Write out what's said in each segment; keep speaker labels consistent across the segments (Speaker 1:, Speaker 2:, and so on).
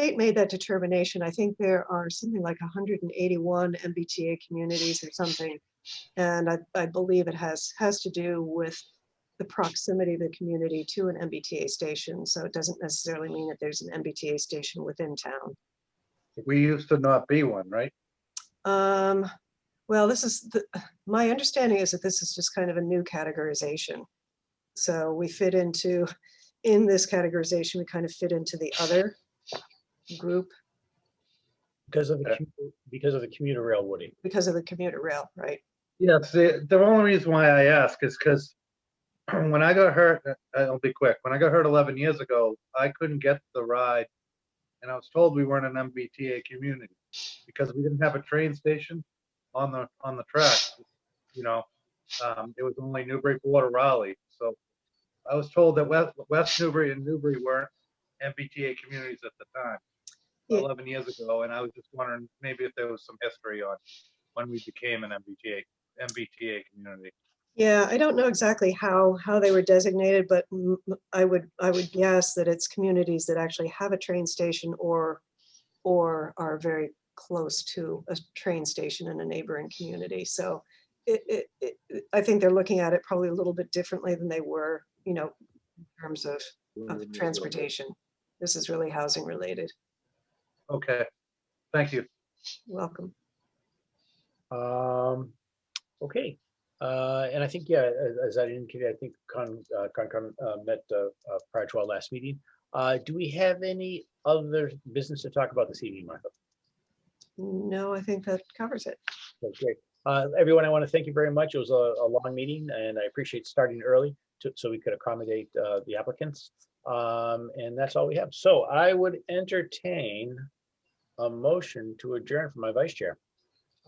Speaker 1: state made that determination, I think there are something like 181 MBTA communities or something. And I, I believe it has, has to do with the proximity of the community to an MBTA station. So it doesn't necessarily mean that there's an MBTA station within town.
Speaker 2: We used to not be one, right?
Speaker 1: Um, well, this is, the my understanding is that this is just kind of a new categorization. So we fit into, in this categorization, we kind of fit into the other group
Speaker 3: Because of the,
Speaker 2: Yeah.
Speaker 3: commu- because of the commuter rail, Woody.
Speaker 1: because of the commuter rail, right?
Speaker 2: Yes, the, the only reason why I ask is because when I got hurt, uh, I'll be quick, when I got hurt 11 years ago, I couldn't get the ride. And I was told we weren't an MBTA community because we didn't have a train station on the, on the track. You know, um, it was only Newburyport or Raleigh. So I was told that West, West Newbury and Newbury weren't MBTA communities at the time,
Speaker 1: Yeah.
Speaker 2: 11 years ago. And I was just wondering maybe if there was some history on when we became an MBTA MBTA community.
Speaker 1: Yeah, I don't know exactly how, how they were designated, but m- m- I would, I would guess that it's communities that actually have a train station or, or are very close to a train station in a neighboring community. So it, it, it, it- I think they're looking at it probably a little bit differently than they were, you know, in terms of, of transportation. This is really housing related.
Speaker 2: Okay, thank you.
Speaker 1: Welcome.
Speaker 3: Um, okay, uh, and I think, yeah, as, as I indicated, I think Con, uh, Concom, uh, met, uh, uh, prior to our last meeting. Uh, do we have any other business to talk about this evening, Martha?
Speaker 1: No, I think that covers it.
Speaker 3: Okay, great. Uh, everyone, I want to thank you very much. It was a, a long meeting and I appreciate starting early to, so we could accommodate, uh, the applicants. Um, and that's all we have. So I would entertain a motion to adjourn from my vice chair.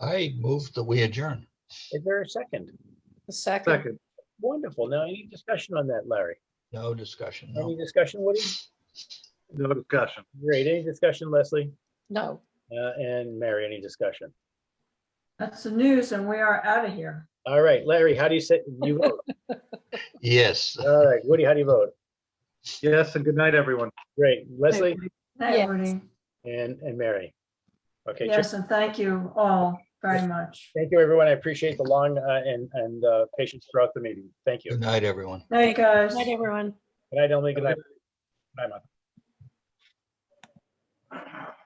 Speaker 4: I move that we adjourn.
Speaker 3: Is there a second?
Speaker 1: Second.
Speaker 2: Second,
Speaker 3: Wonderful. Now, any discussion on that, Larry?
Speaker 4: No discussion,
Speaker 3: Any
Speaker 4: no.
Speaker 3: discussion, Woody?
Speaker 2: no discussion.
Speaker 3: Great. Any discussion, Leslie?
Speaker 5: No,
Speaker 3: Uh, and Mary, any discussion?
Speaker 6: That's the news and we are out of here.
Speaker 3: All right, Larry, how do you say, you vote?
Speaker 4: Yes, uh,
Speaker 3: All right, Woody, how do you vote?
Speaker 2: Yes, and good night, everyone.
Speaker 3: Great. Leslie
Speaker 6: Hey,
Speaker 5: Yes.
Speaker 6: Woody.
Speaker 3: and, and Mary. Okay, Chair-
Speaker 6: Yes, and thank you all very much.
Speaker 3: thank you, everyone. I appreciate the long, uh, and, and, uh, patience throughout the meeting. Thank you.
Speaker 4: good night, everyone.
Speaker 6: Hey, guys.
Speaker 5: night, everyone.
Speaker 3: Good night, Emily. Good night. Bye, Martha.